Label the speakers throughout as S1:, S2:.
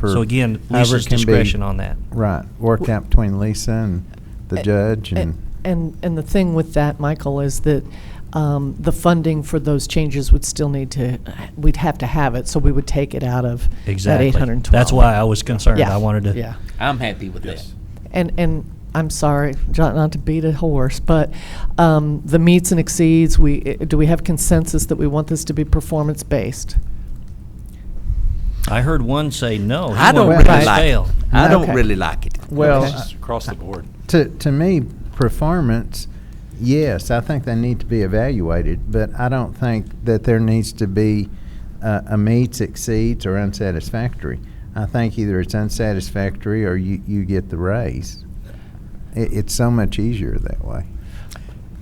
S1: per.
S2: So again,
S1: however
S2: Lisa's
S1: it can be-
S2: discretion on that.
S1: Right, worked out between Lisa and the
S3: A-
S1: judge
S3: a-
S1: and,
S3: And, and the thing with that, Michael, is that um, the funding for those changes would still need to, we'd have to have it, so we would take it out of that
S2: Exactly.
S3: 812.
S2: That's why I was concerned.
S3: Yeah,
S2: I wanted to.
S3: Yeah.
S4: I'm happy with that.
S3: And, and I'm sorry, John, not to beat a horse, but um, the meets and exceeds, we, eh, do we have consensus that we want this to be performance-based?
S2: I heard one say no. he
S4: I don't
S1: Well,
S2: wanted
S4: really
S2: to
S1: right.
S4: like
S2: scale.
S4: it. I don't
S3: Okay.
S4: really like it.
S1: well,
S3: Okay.
S1: uh,
S5: Just across the board.
S1: to, to me, performance, yes, I think they need to be evaluated, but I don't think that there needs to be uh, a meets, exceeds, or unsatisfactory. I think either it's unsatisfactory or you, you get the raise. It, it's so much easier that way.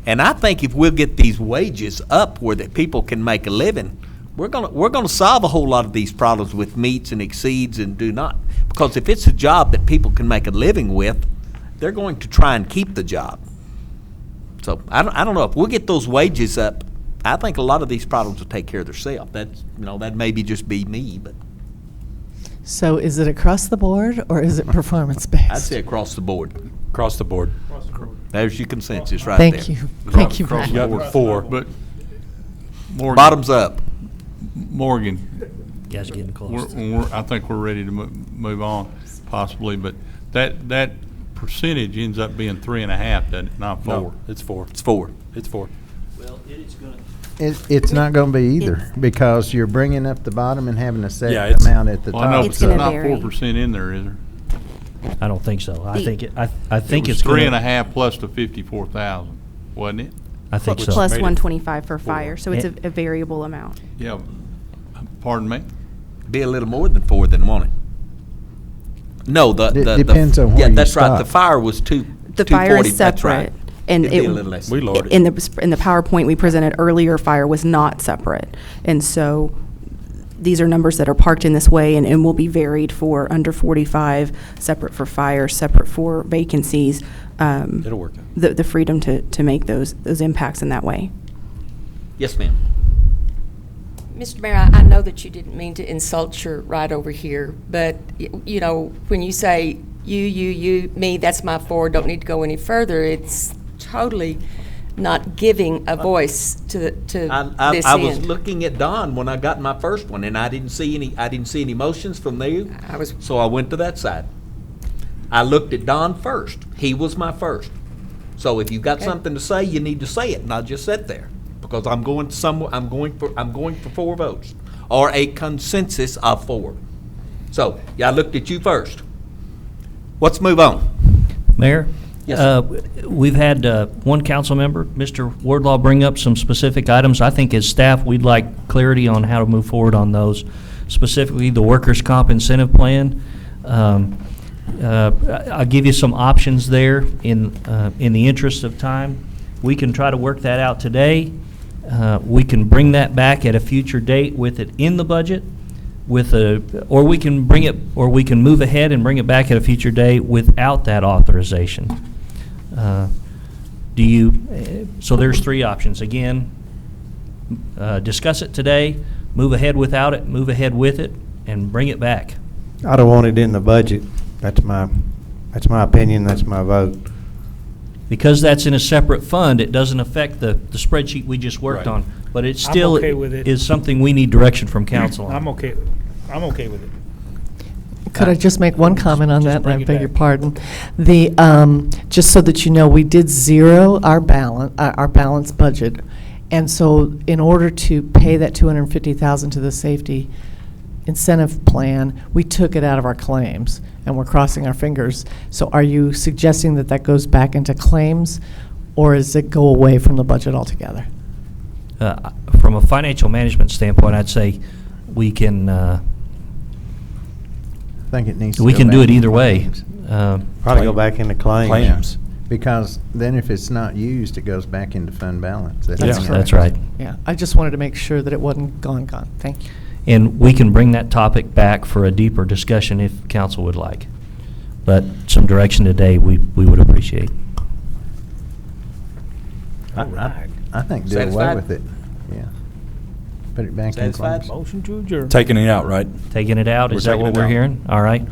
S4: And I think if we'll get these wages up where that people can make a living, we're gonna, we're gonna solve a whole lot of these problems with meets and exceeds and do not. Because if it's a job that people can make a living with, they're going to try and keep the job. So I don't, I don't know, if we'll get those wages up, I think a lot of these problems will take care of themselves. That's, you know, that maybe just be me, but
S3: So is it across the board, or is it performance-based?
S4: I'd say across the board.
S5: Across the board.
S4: There's your consensus right there.
S3: Thank you, thank you.
S6: Across
S3: Matt.
S6: the
S5: You got
S6: board.
S5: four.
S6: But Morgan.
S4: Bottoms up.
S6: Morgan,
S2: Guys getting
S6: we're,
S2: close.
S6: we're, I think we're ready to mo- move on possibly, but that, that percentage ends up being three and a half, doesn't it, not
S5: No,
S6: four?
S5: it's four.
S4: It's four.
S5: It's four.
S2: Well, it is gonna.
S1: It, it's not going to be either because you're bringing up the bottom and having a
S5: Yeah,
S1: set
S5: it's-
S1: amount at the
S6: Well, I know,
S1: top.
S6: but
S1: so-
S6: there's not
S7: vary.
S6: four percent in there, is there?
S2: I don't think so. I
S7: The-
S2: think, it. I, I think
S6: It was
S2: it's gonna.
S6: Three and a half plus the fifty-four thousand, wasn't it?
S2: I think so.
S7: Plus
S5: made it
S7: 125 for fire, so it's a
S2: And-
S7: a variable amount.
S6: Yeah, pardon me?
S4: be a little more than four than one. No, the,
S1: D-
S4: the. the-
S1: depends on where
S4: Yeah,
S1: you
S4: that's right, the
S1: stop.
S4: fire was two,
S7: The
S4: two
S7: fire
S4: forty,
S7: is
S4: that's right.
S7: separate. and
S4: It'd be
S7: it-
S4: a little less.
S5: We lowered it.
S7: In the, in the PowerPoint we presented earlier, fire was not separate. And so these are numbers that are parked in this way and, and will be varied for under 45, separate for fire, separate for vacancies. um,
S5: It'll work out.
S7: The, the freedom to, to make those, those impacts in that way.
S4: Yes, ma'am.
S8: Mr. Mayor, I I know that you didn't mean to insult your right over here, but, y- you know, when you say you, you, you, me, that's my four, don't need to go any further, it's totally not giving a voice to, the- to
S4: Uh, I, I,
S8: this
S4: I was
S8: end.
S4: looking at Don when I got my first one, and I didn't see any, I didn't see any motions from there,
S8: I was,
S4: so I went to that side. I looked at Don first. He was my first. So if you've got
S8: Okay.
S4: something to say, you need to say it, not just sit there, because I'm going somewhere, I'm going for, I'm going for four votes, or a consensus of four. So, yeah, I looked at you first. Let's move on.
S2: Mayor?
S4: Yes,
S2: uh, We've had uh, one council member, Mr. Wardlaw, bring up some specific items. I think as staff, we'd like clarity on how to move forward on those, specifically the workers' comp incentive plan. Um, uh, I- I'll give you some options there in, uh, in the interest of time. We can try to work that out today. Uh, We can bring that back at a future date with it in the budget with a, or we can bring it, or we can move ahead and bring it back at a future date without that authorization. Uh, Do you, eh, so there's three options. Again, uh, discuss it today, move ahead without it, move ahead with it, and bring it back.
S9: I don't want it in the budget. That's my, that's my opinion, that's my vote.
S2: Because that's in a separate fund, it doesn't affect the, the spreadsheet we just worked
S5: Right.
S2: on. But it
S10: I'm
S2: still
S10: okay with it.
S2: is something we need direction from council on.
S10: I'm okay, I'm okay with it.
S3: Could I just make one comment on
S10: Uh, Just
S3: that, and I
S10: bring it
S3: beg your
S10: back.
S3: pardon? The, um, just so that you know, we did zero our balance, uh, our balanced budget, and so in order to pay that 250,000 to the safety incentive plan, we took it out of our claims, and we're crossing our fingers. So are you suggesting that that goes back into claims, or is it go away from the budget altogether?
S2: Uh, From a financial management standpoint, I'd say we can, uh,
S1: I think it needs to
S2: We
S1: go
S2: can do
S1: back
S2: it
S1: in
S2: either way.
S1: claims.
S2: Uh,
S9: Probably go back into claims.
S5: Claims.
S1: Because then if it's not used, it goes back into fund balance.
S2: That's
S1: how it
S2: that's right.
S1: works.
S3: Yeah, I just wanted to make sure that it wasn't gone, gone. Thank you.
S2: And we can bring that topic back for a deeper discussion if council would like. But some direction today, we we would appreciate.
S1: I- I- I think do away
S4: Satisfied?
S1: with it, yeah. put it back in
S4: Satisfied?
S1: claims.
S10: Motion to adjourn.
S5: Taking it out, right?
S2: Taking it out,
S5: We're
S2: is that
S5: taking
S2: what
S5: it
S2: we're
S5: out.
S2: hearing? All right.